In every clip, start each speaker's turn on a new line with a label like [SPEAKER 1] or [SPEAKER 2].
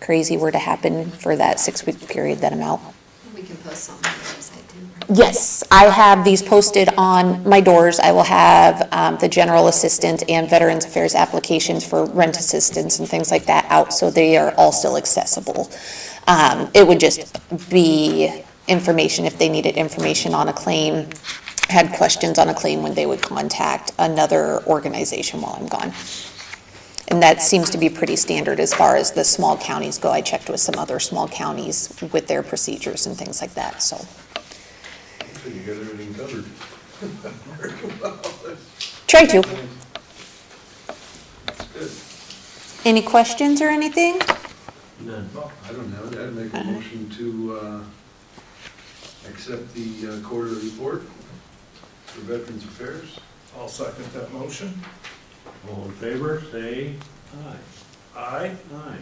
[SPEAKER 1] crazy were to happen for that six-week period, that amount.
[SPEAKER 2] We can post something on the website too. right?
[SPEAKER 1] Yes, I have these posted on my doors. I will have um, the general assistance and Veterans Affairs applications for rent assistance and things like that out, so they are all still accessible. Um, It would just be information, if they needed information on a claim, had questions on a claim, when they would contact another organization while I'm gone. And that seems to be pretty standard as far as the small counties go. I checked with some other small counties with their procedures and things like that, so.
[SPEAKER 3] You got everything covered.
[SPEAKER 1] Try to.
[SPEAKER 3] Good.
[SPEAKER 1] Any questions or anything?
[SPEAKER 4] None.
[SPEAKER 3] Well, I don't have it. I'd make a motion to uh, accept the uh, quarterly report for Veterans Affairs.
[SPEAKER 5] I'll second that motion.
[SPEAKER 4] All in favor, say aye.
[SPEAKER 5] Aye.
[SPEAKER 4] Aye.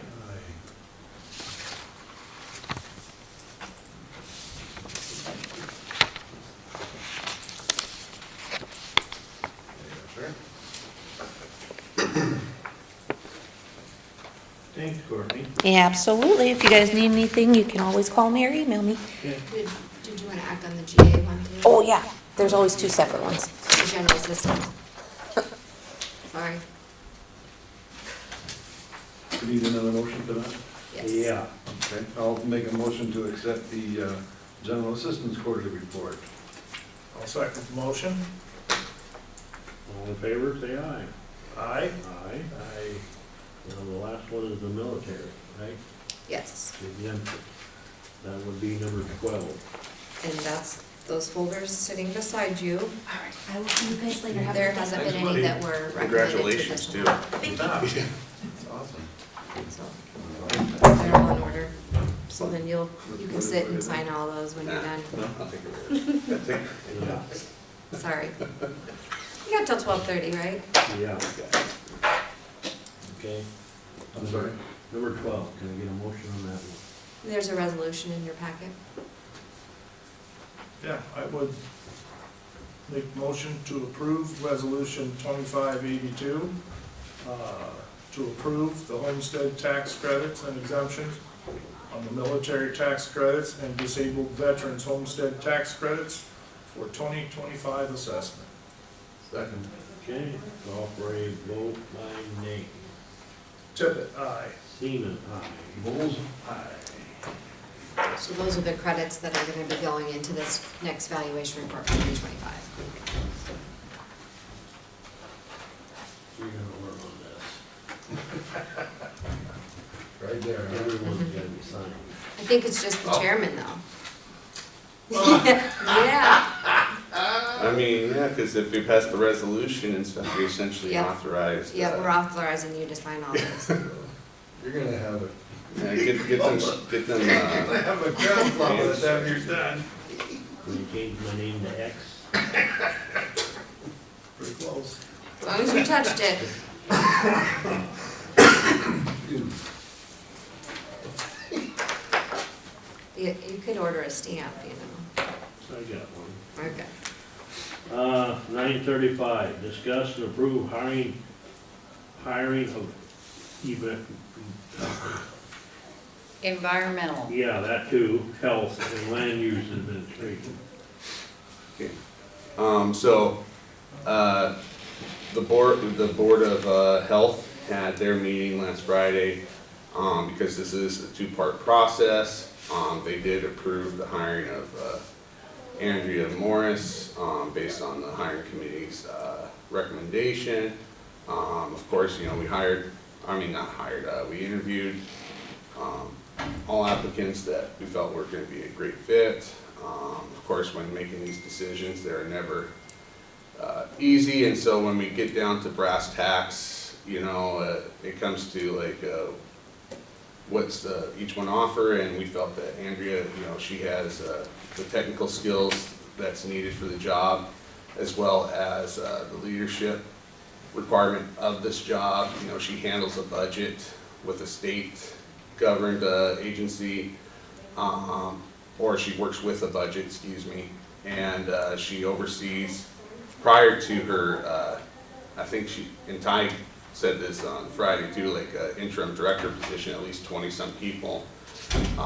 [SPEAKER 4] Thanks, Courtney.
[SPEAKER 1] Yeah, absolutely. If you guys need anything, you can always call me or email me.
[SPEAKER 4] Okay.
[SPEAKER 2] Did did you want to act on the GA one too?
[SPEAKER 1] Oh, yeah, there's always two separate ones.
[SPEAKER 2] The general assistance. Sorry,
[SPEAKER 3] Do you need another motion for that?
[SPEAKER 2] yes.
[SPEAKER 4] Yeah,
[SPEAKER 3] Okay, I'll make a motion to accept the uh, General Assistance Quarterly Report.
[SPEAKER 5] I'll second the motion.
[SPEAKER 4] all in favor, say aye.
[SPEAKER 5] Aye.
[SPEAKER 4] Aye. Aye. Now, the last one is the military, right?
[SPEAKER 2] Yes,
[SPEAKER 4] Exemption. That would be number twelve.
[SPEAKER 2] and that's those folders sitting beside you.
[SPEAKER 6] All right, I will see you guys later. Have a
[SPEAKER 2] There
[SPEAKER 6] good day.
[SPEAKER 2] hasn't been any that were recommended to
[SPEAKER 7] Congratulations,
[SPEAKER 2] this
[SPEAKER 7] too.
[SPEAKER 2] amount.
[SPEAKER 3] Awesome.
[SPEAKER 2] So They're all in order, so then you'll, you can sit and sign all those when you're done.
[SPEAKER 3] No, I'll take it. Take it.
[SPEAKER 4] Yeah,
[SPEAKER 2] Sorry. You got till twelve thirty, right?
[SPEAKER 4] yeah. Okay.
[SPEAKER 3] I'm sorry.
[SPEAKER 4] Number twelve, can I get a motion on that one?
[SPEAKER 2] There's a resolution in your packet.
[SPEAKER 5] Yeah, I would make motion to approve resolution twenty-five eighty-two, uh, to approve the homestead tax credits and exemptions on the military tax credits and disabled veterans homestead tax credits for twenty twenty-five assessment.
[SPEAKER 3] Second.
[SPEAKER 4] Okay, call for a vote by name.
[SPEAKER 5] Tippit, aye.
[SPEAKER 4] Seaman, aye.
[SPEAKER 3] Bulls?
[SPEAKER 2] So those are the credits that are gonna be going into this next valuation report for twenty twenty-five.
[SPEAKER 4] You're gonna work on this.
[SPEAKER 3] Right there. huh?
[SPEAKER 4] Everyone's gotta be signed.
[SPEAKER 2] I think it's just the chairman, though. Yeah,
[SPEAKER 7] I mean, yeah, because if we pass the resolution, it's essentially
[SPEAKER 2] Yeah.
[SPEAKER 7] authorized.
[SPEAKER 2] yeah, we're
[SPEAKER 7] uh,
[SPEAKER 2] authorizing you to sign all those.
[SPEAKER 3] You're gonna have it.
[SPEAKER 7] yeah, Get, get them, get them, uh,
[SPEAKER 3] have a crowd
[SPEAKER 7] by the time
[SPEAKER 3] you're done.
[SPEAKER 4] Will you change my name to X?
[SPEAKER 5] Pretty close.
[SPEAKER 2] As long as you touched it. You, you could order a stamp, you know.
[SPEAKER 4] I got one.
[SPEAKER 2] Okay.
[SPEAKER 4] Uh, nine thirty-five, discuss and approve hiring, hiring of even,
[SPEAKER 8] Environmental.
[SPEAKER 4] yeah, that too, health and land use administration.
[SPEAKER 7] um, so, uh, the board, the Board of, uh, Health had their meeting last Friday, um, because this is a two-part process. Um, they did approve the hiring of, uh, Andrea Morris, um, based on the hiring committee's, uh, recommendation. Um, of course, you know, we hired, I mean, not hired, uh, we interviewed, um, all applicants that we felt were gonna be a great fit. Um, of course, when making these decisions, they're never, uh, easy, and so when we get down to brass tacks, you know, uh, it comes to like, uh, what's, uh, each one offer, and we felt that Andrea, you know, she has, uh, the technical skills that's needed for the job, as well as, uh, the leadership requirement of this job. You know, she handles a budget with a state-governed uh, agency, um, or she works with a budget, excuse me, and uh, she oversees, prior to her, uh, I think she, in time, said this on Friday too, like uh, interim director position, at least twenty-some people